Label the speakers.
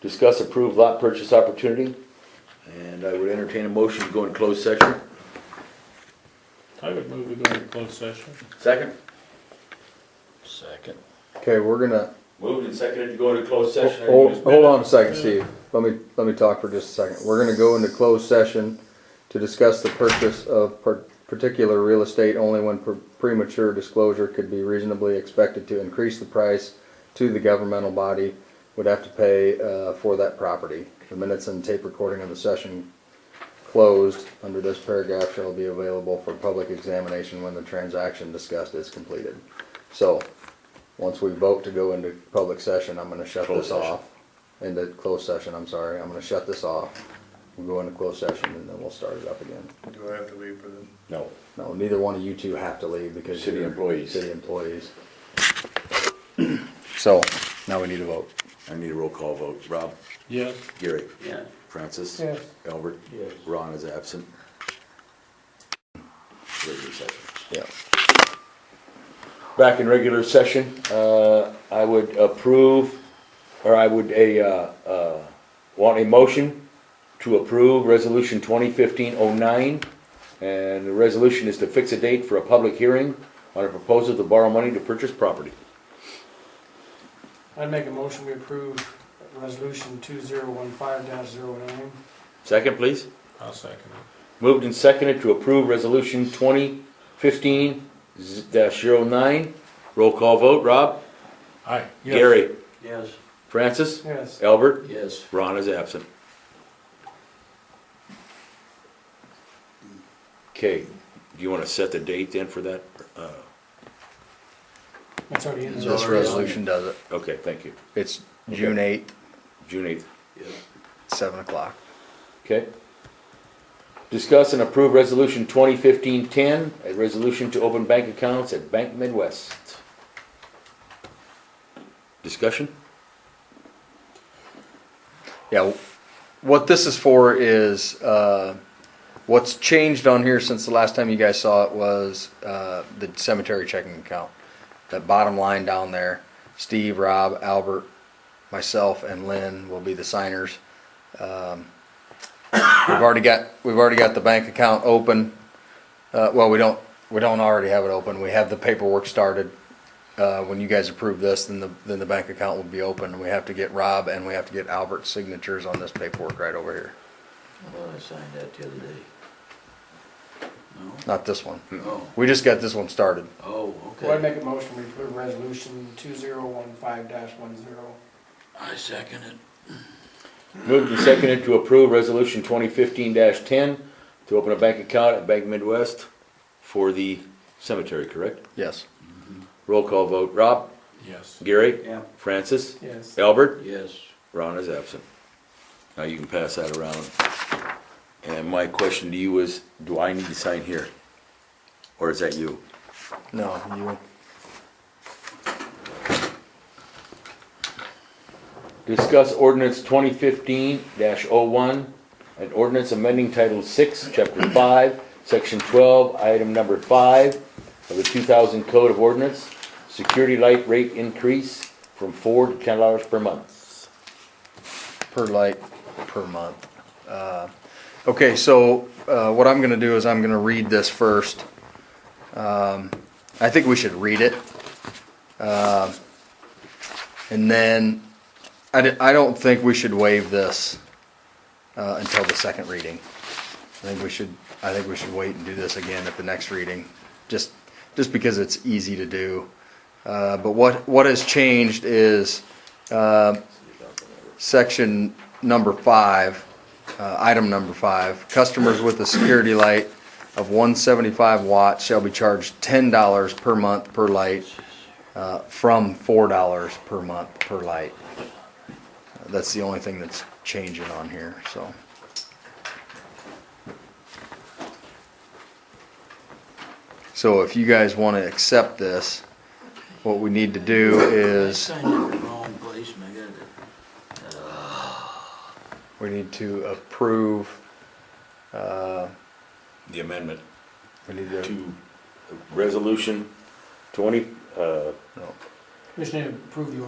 Speaker 1: Discuss approved lot purchase opportunity, and I would entertain a motion to go in closed session.
Speaker 2: I would move we go into closed session.
Speaker 1: Second.
Speaker 3: Second.
Speaker 4: Okay, we're gonna,
Speaker 1: Moved and seconded to go into closed session.
Speaker 4: hold, hold on a second, Steve. Let me, let me talk for just a second. We're gonna go into closed session to discuss the purchase of par- particular real estate only when pre- premature disclosure could be reasonably expected to increase the price to the governmental body would have to pay, uh, for that property. The minutes and tape recording of the session closed under this paragraph shall be available for public examination when the transaction discussed is completed. So, once we vote to go into public session, I'm gonna shut
Speaker 1: Closed
Speaker 4: this
Speaker 1: session.
Speaker 4: off. Into closed session, I'm sorry, I'm gonna shut this off. We'll go into closed session and then we'll start it up again.
Speaker 5: Do I have to leave for the?
Speaker 1: No,
Speaker 4: No, neither one of you two have to leave because.
Speaker 1: City
Speaker 4: you're
Speaker 1: employees.
Speaker 4: City employees. So, now we need a vote.
Speaker 1: I need a roll call vote. Rob?
Speaker 2: Yes.
Speaker 1: Gary?
Speaker 3: Yeah.
Speaker 1: Francis?
Speaker 2: Yes.
Speaker 1: Albert?
Speaker 2: Yes.
Speaker 1: Ron is absent. Regular session.
Speaker 4: Yeah.
Speaker 1: Back in regular session, uh, I would approve, or I would a, uh, uh, want a motion to approve resolution twenty fifteen oh nine. And the resolution is to fix a date for a public hearing on a proposal to borrow money to purchase property.
Speaker 6: I'd make a motion we approve resolution two zero one five dash zero nine.
Speaker 1: Second, please.
Speaker 2: I'll second it.
Speaker 1: Moved and seconded to approve resolution twenty fifteen dash zero nine. Roll call vote, Rob?
Speaker 2: Aye.
Speaker 1: Gary?
Speaker 3: Yes.
Speaker 1: Francis?
Speaker 6: Yes.
Speaker 1: Albert?
Speaker 3: Yes.
Speaker 1: Ron is absent. Okay, do you wanna set the date then for that? Uh,
Speaker 6: That's already in there.
Speaker 4: This resolution does it.
Speaker 1: okay, thank you.
Speaker 4: It's June eighth,
Speaker 1: June eighth,
Speaker 4: seven o'clock.
Speaker 1: okay? Discuss and approve resolution 2015-10, a resolution to open bank accounts at Bank Midwest. Discussion?
Speaker 4: Yeah, what this is for is, uh, what's changed on here since the last time you guys saw it was, uh, the cemetery checking account. That bottom line down there, Steve, Rob, Albert, myself and Lynn will be the signers. Um, We've already got, we've already got the bank account open. Uh, well, we don't, we don't already have it open. We have the paperwork started. Uh, when you guys approve this, then the, then the bank account will be open. We have to get Rob and we have to get Albert's signatures on this paperwork right over here.
Speaker 3: Well, I signed that the other day. No?
Speaker 4: Not this one.
Speaker 3: No.
Speaker 4: We just got this one started.
Speaker 3: Oh,
Speaker 6: Well, I'd
Speaker 3: okay.
Speaker 6: make a motion we approve resolution two zero one five dash one zero.
Speaker 3: I second it.
Speaker 1: Moved and seconded to approve resolution twenty fifteen ten to open a bank account at Bank Midwest for the cemetery, correct?
Speaker 4: Yes.
Speaker 1: Roll call vote. Rob?
Speaker 2: Yes.
Speaker 1: Gary?
Speaker 3: Yeah.
Speaker 1: Francis?
Speaker 6: Yes.
Speaker 1: Albert?
Speaker 3: Yes.
Speaker 1: Ron is absent. Now you can pass that around. And my question to you is, do I need to sign here? Or is that you?
Speaker 4: No, you,
Speaker 1: Discuss ordinance twenty fifteen oh one an ordinance amending Title Six, Chapter Five, Section twelve, item number five of the two thousand Code of Ordinance, security light rate increase from four to ten dollars per month.
Speaker 4: per light, per month. Uh, Okay, so, uh, what I'm gonna do is I'm gonna read this first. Um, I think we should read it. Um, And then, I, di- I don't think we should waive this, uh, until the second reading. I think we should, I think we should wait and do this again at the next reading, just, just because it's easy to do. Uh, but what, what has changed is, uh, section number five, uh, item number five, customers with a security light of one seventy-five watts shall be charged ten dollars per month per light, uh, from four dollars per month per light. Uh, That's the only thing that's changing on here, so. So if you guys wanna accept this, what we need to do
Speaker 3: I
Speaker 4: is.
Speaker 3: signed it in the wrong place and I got it.
Speaker 4: We need to approve, uh,
Speaker 1: The amendment
Speaker 4: we need to,
Speaker 1: resolution twenty, uh,
Speaker 4: no.
Speaker 6: We should approve the